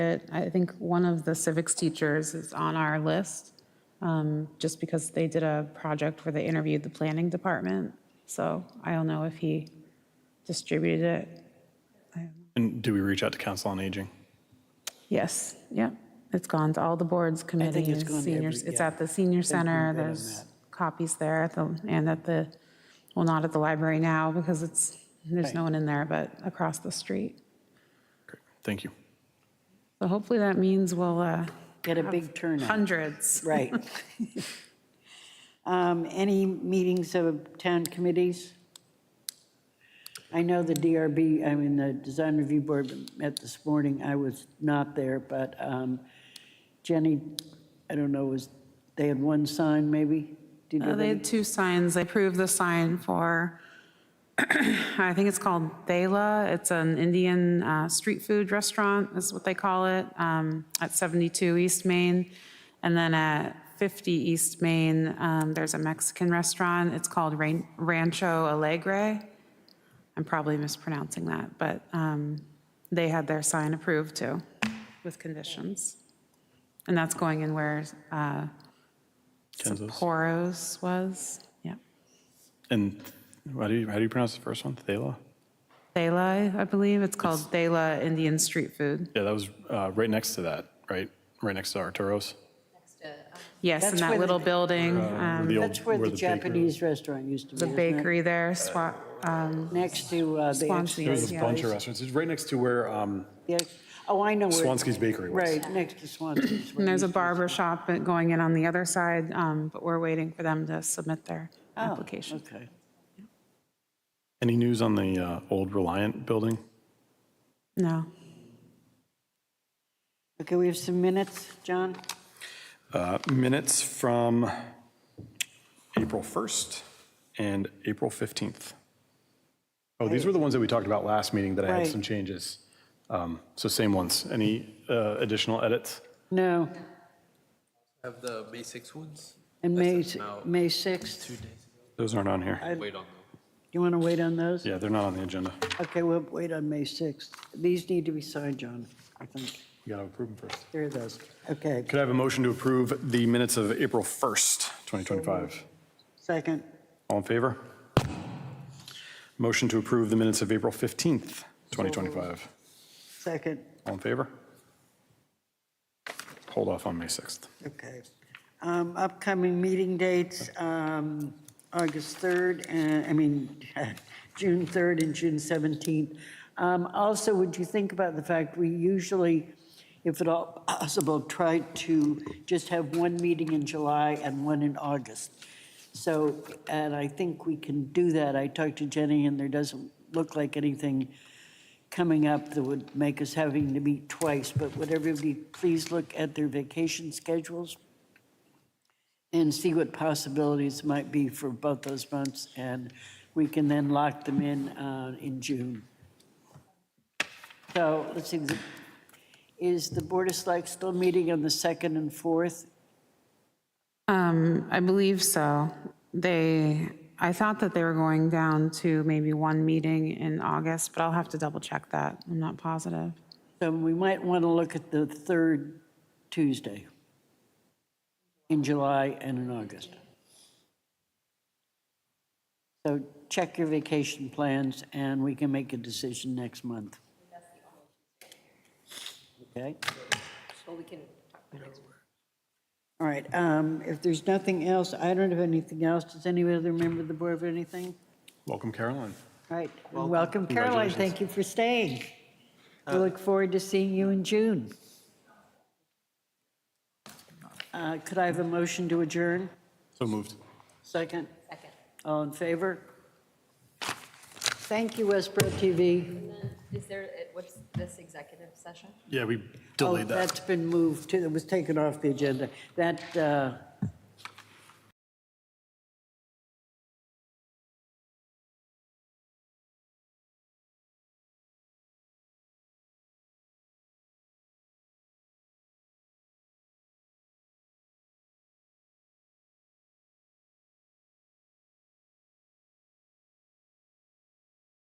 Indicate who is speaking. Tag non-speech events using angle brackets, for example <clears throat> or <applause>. Speaker 1: it. I think one of the civics teachers is on our list, um, just because they did a project where they interviewed the planning department. So I don't know if he distributed it.
Speaker 2: And do we reach out to Council on Aging?
Speaker 1: Yes, yep. It's gone to all the boards, committees,
Speaker 3: gone to
Speaker 1: seniors.
Speaker 3: every-
Speaker 1: It's
Speaker 3: yeah.
Speaker 1: at the senior center.
Speaker 3: been better than
Speaker 1: There's copies there at the, and at the, well, not at the library now because it's, there's no one in there, but across the street.
Speaker 2: Great, Thank you.
Speaker 1: So hopefully that means we'll, uh,
Speaker 3: Get a big turnout,
Speaker 1: hundreds.
Speaker 3: <laughs> right. Um, Any meetings of town committees? I know the DRB, I mean, the Design Review Board met this morning, I was not there, but um, Jenny, I don't know, was, they had one sign maybe? Did
Speaker 1: Uh, They
Speaker 3: they?
Speaker 1: had two signs. They approved the sign for, <clears throat> I think it's called Thela. It's an Indian uh, street food restaurant, is what they call it, um, at 72 East Main. And then at 50 East Main, um, there's a Mexican restaurant. It's called Ran- Rancho Alegre. I'm probably mispronouncing that, but um, they had their sign approved too, with conditions. And that's going in where uh,
Speaker 2: Kenzos.
Speaker 1: Sapporo's was, yeah.
Speaker 2: And how do you, how do you pronounce the first one? Thela?
Speaker 1: Thela, I believe, it's called Thela Indian Street Food.
Speaker 2: Yeah, that was uh, right next to that, right? Right next to Arturo's.
Speaker 1: Yes, in
Speaker 3: That's
Speaker 1: that
Speaker 3: where the-
Speaker 1: little building,
Speaker 2: Where
Speaker 1: um,
Speaker 2: the old-
Speaker 3: That's where the
Speaker 2: bakery-
Speaker 3: Japanese restaurant used to be.
Speaker 1: the
Speaker 3: isn't it?
Speaker 1: bakery there, Swa- um,
Speaker 3: Next to uh, the. ex-
Speaker 1: Swansea.
Speaker 2: There's a
Speaker 1: yeah.
Speaker 2: bunch of restaurants. It's right next to where, um,
Speaker 3: the ex- Oh, I know where.
Speaker 2: Swansky's Bakery was.
Speaker 3: Right, next to Swansky's.
Speaker 1: And there's a
Speaker 3: where it used to be.
Speaker 1: barber shop going in on the other side, um, but we're waiting for them to submit their
Speaker 3: Oh,
Speaker 1: application.
Speaker 3: Okay.
Speaker 2: any news on the uh, old Reliant building?
Speaker 1: No.
Speaker 3: Okay, we have some minutes, John?
Speaker 2: Uh, Minutes from April 1st and April 15th. Oh, these were the ones that we talked about last meeting that I had
Speaker 3: Right.
Speaker 2: some changes. Um, So same ones. Any uh, additional edits?
Speaker 3: No,
Speaker 4: Have the May 6 ones?
Speaker 3: and May,
Speaker 4: That's now
Speaker 3: May 6th.
Speaker 2: Those aren't on here.
Speaker 4: Wait on them.
Speaker 3: You want to wait on those?
Speaker 2: Yeah, they're not on the agenda.
Speaker 3: Okay, we'll wait on May 6th. These need to be signed, John, I think.
Speaker 2: We got to approve them first.
Speaker 3: Here are those. Okay,
Speaker 2: Could I have a motion to approve the minutes of April 1st, 2025?
Speaker 3: second.
Speaker 2: All in favor? Motion to approve the minutes of April 15th, 2025.
Speaker 3: Second,
Speaker 2: All in favor? Hold off on May 6th.
Speaker 3: okay. Um, Upcoming meeting dates, um, August 3rd, and, I mean, <laughs> June 3rd and June 17th. Um, Also, would you think about the fact we usually, if at all possible, try to just have one meeting in July and one in August? So, and I think we can do that. I talked to Jenny, and there doesn't look like anything coming up that would make us having to meet twice, but would everybody please look at their vacation schedules and see what possibilities might be for both those months, and we can then lock them in uh, in June. So, let's see, the- is the Board of Select still meeting on the 2nd and 4th?
Speaker 1: Um, I believe so. They, I thought that they were going down to maybe one meeting in August, but I'll have to double check that. I'm not positive.
Speaker 3: So we might want to look at the third Tuesday in July and in August. So check your vacation plans, and we can make a decision next month. Okay? All right, um, if there's nothing else, I don't have anything else. Does any other member of the board have anything?
Speaker 2: Welcome, Caroline.
Speaker 3: All right, and welcome Caroline, thank you for staying. We look forward to seeing you in June. Uh, Could I have a motion to adjourn?
Speaker 2: So moved.
Speaker 3: Second? Second. All in favor? Thank you, Westboro TV.
Speaker 5: Is there, what's this executive session?
Speaker 2: Yeah, we
Speaker 3: Oh,
Speaker 2: delayed that.
Speaker 3: That's been moved to, it was taken off the agenda. That, uh,